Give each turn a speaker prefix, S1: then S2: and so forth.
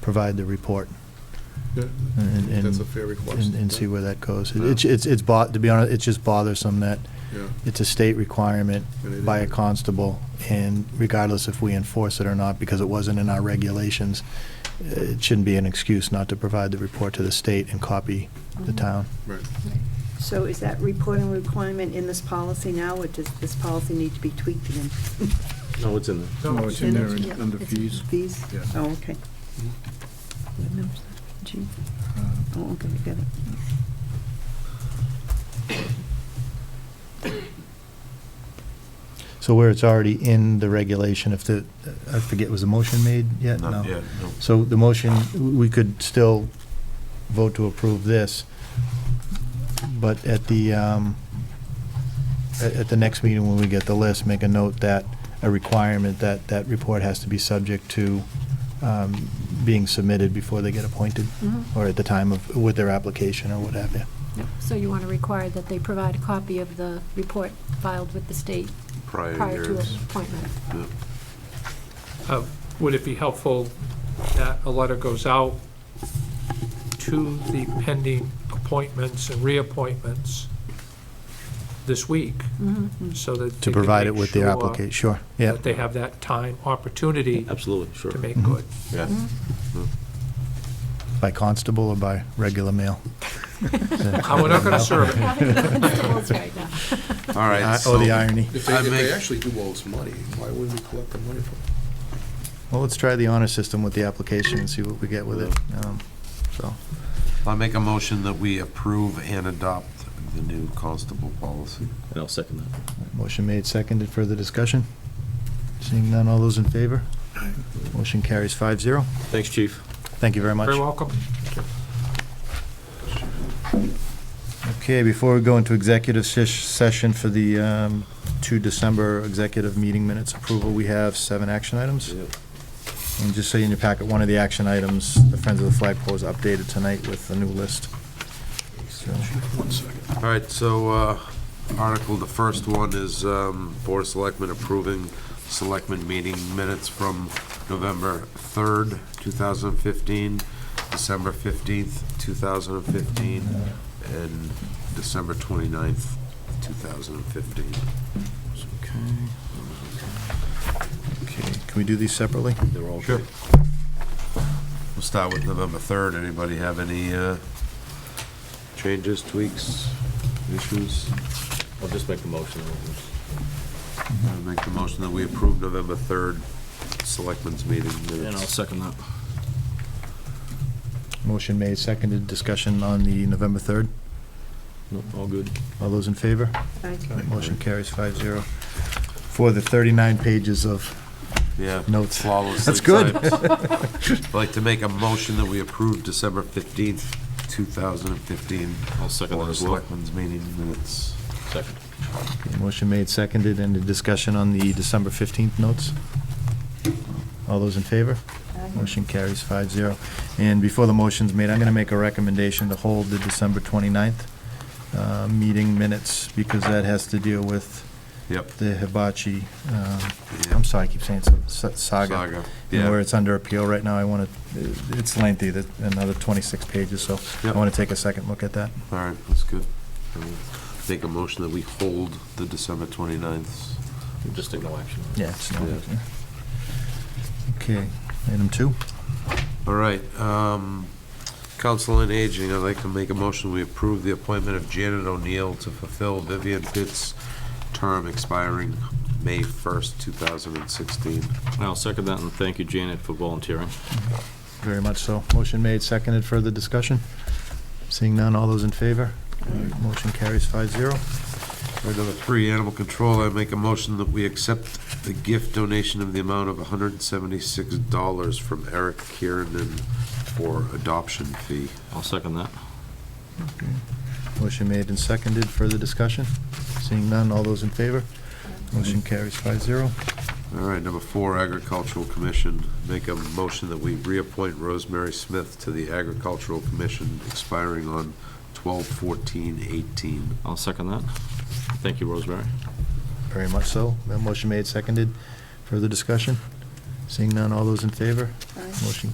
S1: provide the report
S2: Yeah,
S1: and,
S2: That's a
S1: and,
S2: fair request.
S1: and and see where that goes.
S2: Yeah.
S1: It's, it's, it's, bo- to be honest, it's just bothersome that
S2: Yeah,
S1: it's a state requirement
S2: And it
S1: by a
S2: is.
S1: constable, and regardless if we enforce it or not, because it wasn't in our regulations, uh, it shouldn't be an excuse not to provide the report to the state and copy the town.
S2: right.
S3: So is that reporting requirement in this policy now, or does this policy need to be tweaked again?
S4: No, it's in there.
S2: No,
S5: it's in there in- under fees.
S3: Fees?
S5: Yeah.
S3: Oh, okay. What number is that? G?
S5: uh,
S3: Oh, okay, I got it.
S1: So where it's already in the regulation, if the, I forget, was a motion made yet? No.
S6: Not yet, no.
S1: So the motion, we could still vote to approve this, but at the, um, at at the next meeting when we get the list, make a note that, a requirement that that report has to be subject to um, being submitted before they get appointed,
S3: Mhm.
S1: or at the time of, with their application or what have you.
S7: Yep, So you want to require that they provide a copy of the report filed with the state
S6: Prior
S7: prior to
S6: years.
S7: appointment?
S6: Yeah.
S8: Uh, Would it be helpful that a letter goes out to the pending appointments and reappointments this week? So
S1: To
S8: that. they can
S1: provide it
S8: make
S1: with their
S8: sure
S1: application, sure, yeah.
S8: That they have that time, opportunity
S4: Absolutely, sure.
S8: to make good.
S1: Mm-hmm.
S6: Yeah.
S1: By constable or by regular mail?
S8: And we're not going to serve it.
S7: Having constables right now.
S6: All right.
S1: Oh, the
S6: so-
S1: irony.
S2: If they,
S6: I
S2: if they
S6: make-
S2: actually do owe us money, why wouldn't we collect the money from them?
S1: Well, let's try the honor system with the application and see what we get with it, um, so.
S6: I'll make a motion that we approve and adopt the new constable policy.
S4: And I'll second that.
S1: Motion made, seconded, further discussion? Seeing none, all those in favor? Motion carries five zero.
S4: Thanks, chief.
S1: Thank you very much.
S8: Very welcome.
S1: Okay, before we go into executive sesh- session for the um, 2 December executive meeting minutes approval, we have seven action items.
S4: Yep.
S1: And just so you in your packet, one of the action items, the Friends of the Flagpole is updated tonight with the new list. So,
S6: All right, so uh, Article, the first one is um, Board of Selectmen approving Selectmen meeting minutes from November 3rd, 2015, December 15th, 2015, and December 29th, 2015.
S1: Okay, can we do these separately?
S4: They're all
S6: Sure.
S4: good.
S6: We'll start with November 3rd. Anybody have any uh, changes, tweaks, issues?
S4: I'll just make the motion.
S6: I make the motion that we approve November 3rd Selectmen's meeting
S4: And I'll
S6: minutes.
S4: second that.
S1: Motion made, seconded, discussion on the November 3rd.
S4: No, all good.
S1: All those in favor?
S3: Aye.
S1: Motion carries five zero for the 39 pages of
S6: Yeah.
S1: Notes.
S6: Flawlessly
S1: That's good.
S6: typed. I'd like to make a motion that we approve December 15th, 2015.
S4: I'll second
S6: Board
S4: that
S6: of
S4: as well.
S6: Selectmen's meeting minutes.
S4: Second.
S1: Motion made, seconded, and a discussion on the December 15th notes. All those in favor? Motion carries five zero. And before the motion's made, I'm going to make a recommendation to hold the December 29th uh, meeting minutes because that has to deal with
S6: Yep.
S1: the hibachi, um,
S6: yeah.
S1: I'm sorry, I keep saying sa- sa- saga.
S6: Saga,
S1: And where
S6: yeah.
S1: it's under appeal right now, I want to, it's lengthy, that- another 26 pages, so I
S6: Yep.
S1: want to take a second look at that.
S6: All right, that's good. I will Make a motion that we hold the December 29th.
S4: Just take no action.
S1: Yeah. it's not-
S6: Yeah.
S1: Okay, item two.
S6: All right, um, Council on Aging, I'd like to make a motion, we approve the appointment of Janet O'Neill to fulfill Vivian Pitt's term expiring May 1st, 2016.
S4: And I'll second that, and thank you, Janet, for volunteering.
S1: Very much so. Motion made, seconded, further discussion? Seeing none, all those in favor? Motion carries five zero.
S6: Item number three, Animal Control, I make a motion that we accept the gift donation of the amount of $176 from Eric Kiernan for adoption fee.
S4: I'll second that.
S1: Motion made and seconded, further discussion? Seeing none, all those in favor? Motion carries five zero.
S6: All right, number four, Agricultural Commission. Make a motion that we reappoint Rosemary Smith to the Agricultural Commission expiring on 12/14/18.
S4: I'll second that. Thank you, Rosemary.
S1: Very much so. That Motion made, seconded, further discussion? Seeing none, all those in favor?
S3: Aye.
S1: Motion